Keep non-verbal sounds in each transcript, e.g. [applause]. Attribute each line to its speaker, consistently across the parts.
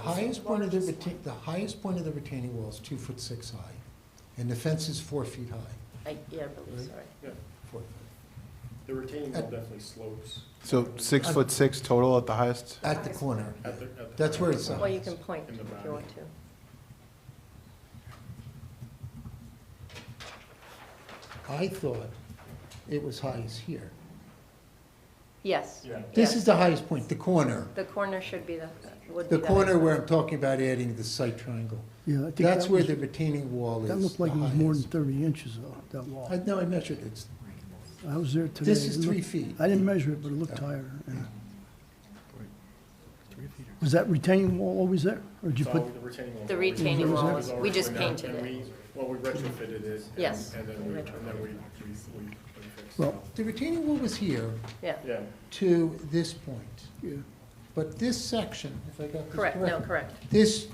Speaker 1: highest point of the retain, the highest point of the retaining wall is two foot six high, and the fence is four feet high,
Speaker 2: I, yeah, I believe so. right.
Speaker 3: Yeah,
Speaker 1: four foot,
Speaker 3: the retaining wall definitely slopes.
Speaker 4: So
Speaker 1: Uh,
Speaker 4: six foot six total at the highest?
Speaker 1: at the corner.
Speaker 3: At the- at the-
Speaker 1: That's where it's at.
Speaker 2: Well, you can point
Speaker 3: In the
Speaker 2: if
Speaker 3: body.
Speaker 2: you want to.
Speaker 1: I thought it was highest here.
Speaker 2: Yes.
Speaker 3: Yeah.
Speaker 1: This
Speaker 2: yes.
Speaker 1: is the highest point, the corner,
Speaker 2: The corner should be the, would be
Speaker 1: the
Speaker 2: the
Speaker 1: corner
Speaker 2: highest.
Speaker 1: where I'm talking about adding the site triangle.
Speaker 5: Yeah, I think that
Speaker 1: That's where
Speaker 5: was,
Speaker 1: the retaining wall is.
Speaker 5: that looked like
Speaker 1: the
Speaker 5: it was more than
Speaker 1: highest.
Speaker 5: thirty inches though, that wall.
Speaker 1: I, no, I measured it, It's-
Speaker 5: I was there today.
Speaker 1: this is
Speaker 5: It
Speaker 1: three
Speaker 5: looked-
Speaker 1: feet.
Speaker 5: I didn't measure it, but it looked higher. and- Was that retaining wall always there? Or did you
Speaker 3: It's
Speaker 5: put,
Speaker 3: all the retaining wall.
Speaker 2: The retaining
Speaker 5: wall
Speaker 3: was
Speaker 2: was- we
Speaker 3: already
Speaker 2: just
Speaker 3: there,
Speaker 2: painted
Speaker 3: and
Speaker 2: it.
Speaker 3: we- Well, we retrofitted it. and-
Speaker 2: Yes,
Speaker 3: And then we,
Speaker 2: we
Speaker 3: and then we, we, we we fixed it.
Speaker 5: Well-
Speaker 1: The retaining wall was here
Speaker 2: Yeah,
Speaker 3: Yeah,
Speaker 1: to this point,
Speaker 5: yeah,
Speaker 1: but this section, if I got this
Speaker 2: correct,
Speaker 1: correct.
Speaker 2: no, correct.
Speaker 1: This,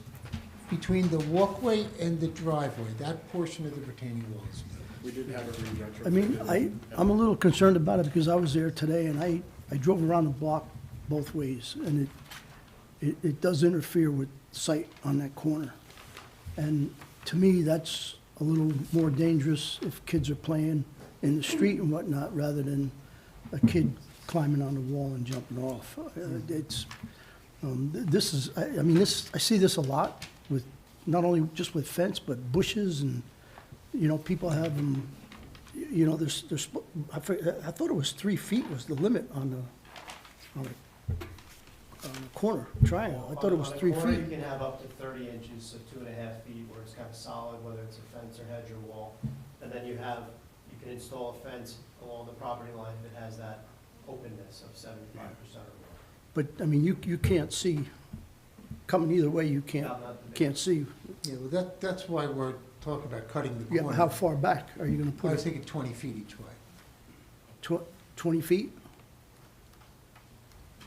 Speaker 1: between the walkway and the driveway, that portion of the retaining wall is
Speaker 3: we did have it re-retrofitted.
Speaker 5: I mean, I, I'm a little concerned about it because I was there today and I, I drove around the block both ways and it, it, it does interfere with sight on that corner. And to me, that's a little more dangerous if kids are playing in the street and whatnot, rather than a kid climbing on the wall and jumping off. Uh, It's, um, th- this is, I, I mean, this, I see this a lot with, not only just with fence, but bushes and, you know, people have them, you know, there's, there's, I forget- I thought it was three feet was the limit on the, on the, on the corner triangle. I thought it was
Speaker 6: On the
Speaker 5: three
Speaker 6: corner,
Speaker 5: feet.
Speaker 6: you can have up to thirty inches, so two and a half feet where it's kind of solid, whether it's a fence or hedge or wall. And then you have, you can install a fence along the property line that has that openness of seventy-five percent or
Speaker 5: But, I mean, you, you can't see, coming either way, you
Speaker 6: more.
Speaker 5: can't,
Speaker 6: Not- not the big-
Speaker 5: can't see,
Speaker 1: Yeah, well, that, that's why we're talking about cutting the
Speaker 5: yeah,
Speaker 1: corner.
Speaker 5: but how far back are you gonna
Speaker 1: I
Speaker 5: put
Speaker 1: was
Speaker 5: it?
Speaker 1: thinking twenty feet each way,
Speaker 5: Tw- Twenty feet?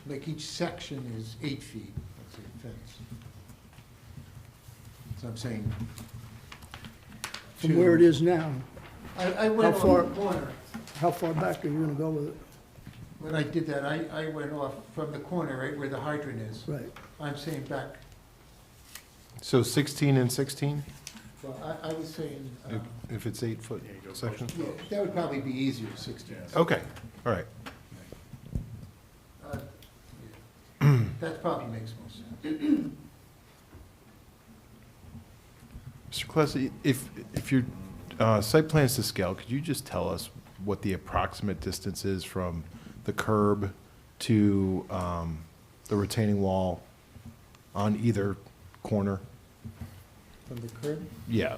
Speaker 1: like each section is eight feet, that's a fence. So I'm saying.
Speaker 5: From where it
Speaker 1: to-
Speaker 5: is now,
Speaker 1: I, I went
Speaker 5: How
Speaker 1: on the
Speaker 5: far-
Speaker 1: corner,
Speaker 5: how far back are you gonna go with it?
Speaker 1: when I did that, I, I went off from the corner, right where the hydrant is.
Speaker 5: Right,
Speaker 1: I'm saying back,
Speaker 4: So sixteen and sixteen,
Speaker 1: well, I, I was saying, uh,
Speaker 4: if, if it's eight foot section?
Speaker 1: yeah, that would probably be easier, sixteen.
Speaker 4: Okay, all right.
Speaker 1: Uh, yeah. [clears throat] That probably makes more sense.
Speaker 4: Mr. Klesse, if, if your, uh, site plan's to scale, could you just tell us what the approximate distance is from the curb to, um, the retaining wall on either corner?
Speaker 1: From the curb?
Speaker 4: Yeah.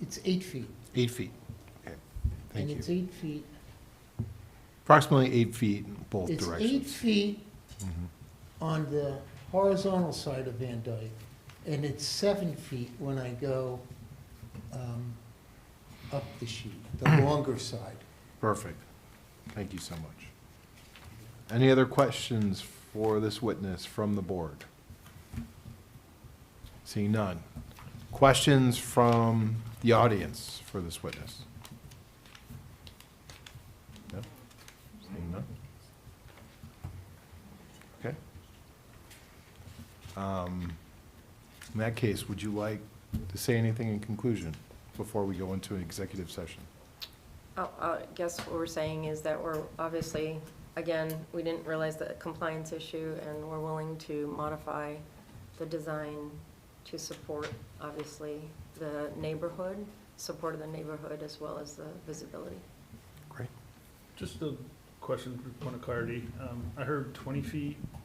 Speaker 1: It's eight feet.
Speaker 4: Eight feet. Okay, Thank
Speaker 1: And it's
Speaker 4: you.
Speaker 1: eight feet.
Speaker 4: Approximately eight feet in both
Speaker 1: It's eight
Speaker 4: directions. Mm-hmm.
Speaker 1: feet on the horizontal side of Van Dyke, and it's seven feet when I go um, up the sheet, the
Speaker 4: [clears throat]
Speaker 1: longer side.
Speaker 4: Perfect. Thank you so much. Any other questions for this witness from the board? Seeing none. Questions from the audience for this witness? No? Seeing none? Okay. Um, In that case, would you like to say anything in conclusion before we go into an executive session?
Speaker 2: I- Oh, I guess what we're saying is that we're, obviously, again, we didn't realize the compliance issue, and we're willing to modify the design to support, obviously, the neighborhood, support of the neighborhood as well as the visibility.
Speaker 4: Great.
Speaker 7: Just the
Speaker 3: question, for point of clarity. Um, I heard twenty feet